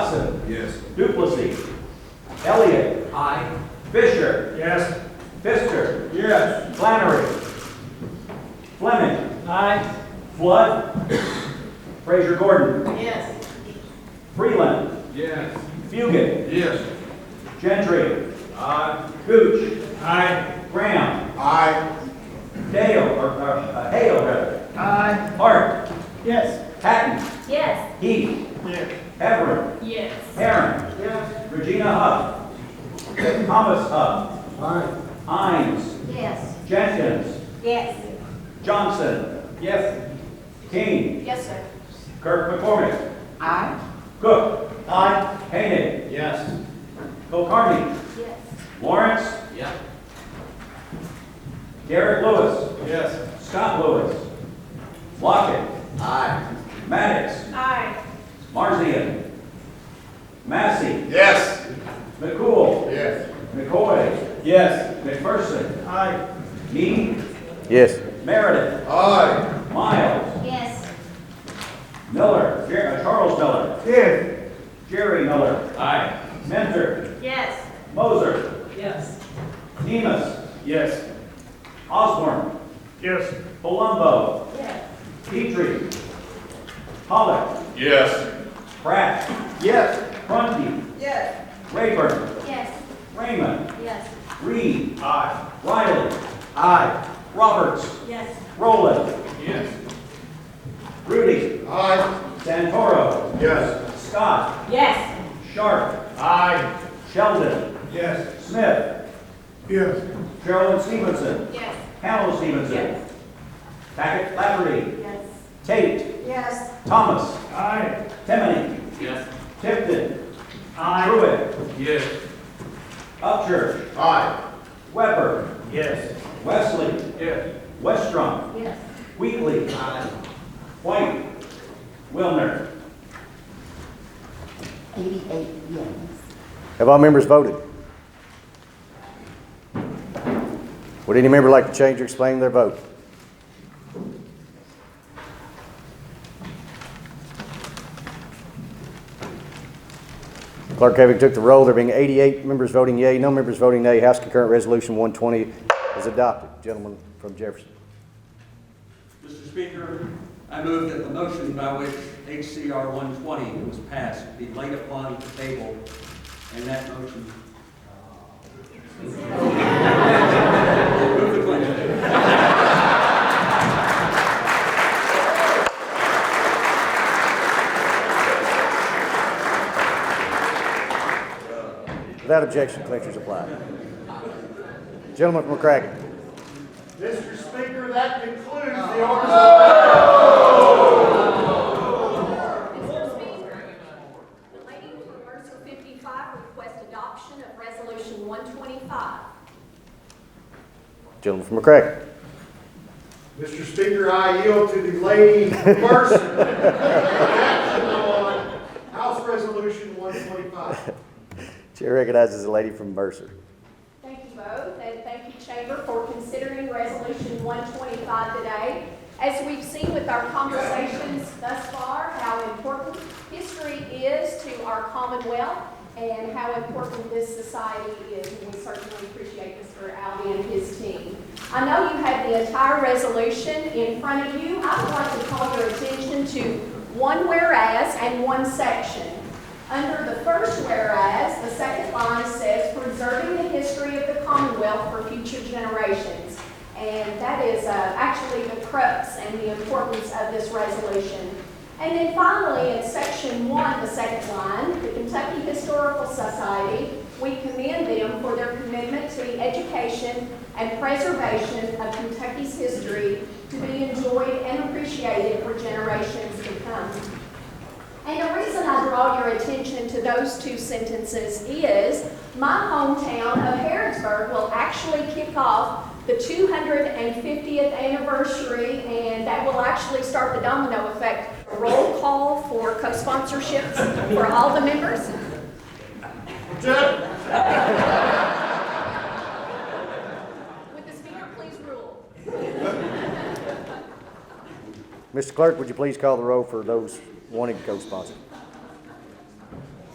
Hudson. Yes. Duplessy. Elliott. Aye. Fisher. Yes. Fisker. Yes. Flannery. Fleming. Aye. Flood. Fraser Gordon. Yes. Freeland. Yes. Fugit. Yes. Gentry. Aye. Gooch. Aye. Graham. Aye. Dale, or, or, uh, Hale, rather. Aye. Hart. Yes. Patton. Yes. Heath. Yes. Everett. Yes. Heron. Yes. Regina Huff. Thomas Huff. Aye. Hines. Yes. Jenkins. Yes. Johnson. Yes. King. Yes, sir. Kirk McCormick. Aye. Cook. Aye. Hayden. Yes. Kulkarni. Yes. Lawrence. Yep. Derek Lewis. Yes. Scott Lewis. Lockett. Aye. Maddox. Aye. Marzian. Massey. Yes. McCool. Yes. McCoy. Yes. McPherson. Aye. Mead. Yes. Meredith. Aye. Miles. Yes. Miller. Jer- uh, Charles Miller. Yes. Jerry Miller. Aye. Mentor. Yes. Moser. Yes. Demus. Yes. Osborne. Yes. Palumbo. Yes. Petrie. Pollock. Yes. Pratt. Yes. Prunty. Yes. Rayburn. Yes. Raymond. Yes. Reed. Aye. Riley. Aye. Roberts. Yes. Rowland. Yes. Rudy. Aye. Santoro. Yes. Scott. Yes. Sharp. Aye. Sheldon. Yes. Smith. Yes. Carolyn Stevenson. Yes. Hal Stevenson. Yes. Tackett Flaherty. Yes. Tate. Yes. Thomas. Aye. Timoney. Yes. Tipton. Truitt. Yes. Upchurch. Aye. Weber. Yes. Wesley. Yes. Westrom. Yes. Wheatley. Aye. White. Wilner. Eighty-eight, yes. Have all members voted? Would any member like to change or explain their vote? Clerk Having took the roll. There being 88 members voting yea, no members voting nay. House Concurrent Resolution 120 is adopted. Gentleman from Jefferson. Mr. Speaker, I move that the motion by which HCR 120 was passed be laid upon the table, and that motion... Move the question. Without objection, clinchers apply. Gentleman from McCracken. Mr. Speaker, that concludes the order. Mr. Speaker, relating to emergency 55, request adoption of Resolution 125. Gentleman from McCracken. Mr. Speaker, I yield to the lady first. Action on House Resolution 125. Chair recognizes the lady from Mercer. Thank you both, and thank you, Chamber, for considering Resolution 125 today. As we've seen with our conversations thus far, how important history is to our Commonwealth and how important this society is, and we certainly appreciate Mr. Alvey and his team. I know you have the entire resolution in front of you. I would like to call your attention to one whereas and one section. Under the first whereas, the second line says preserving the history of the Commonwealth for future generations. And that is uh, actually the crux and the importance of this resolution. And then finally, in section one, the second line, the Kentucky Historical Society, we commend them for their commitment to the education and preservation of Kentucky's history to be enjoyed and appreciated for generations to come. And the reason I draw your attention to those two sentences is my hometown of Harrodsburg will actually kick off the 250th anniversary, and that will actually start the domino effect. Roll call for co-sponsorships for all the members. Jeff? Would the speaker please rule? Mr. Clerk, would you please call the roll for those wanting to co-sponsor?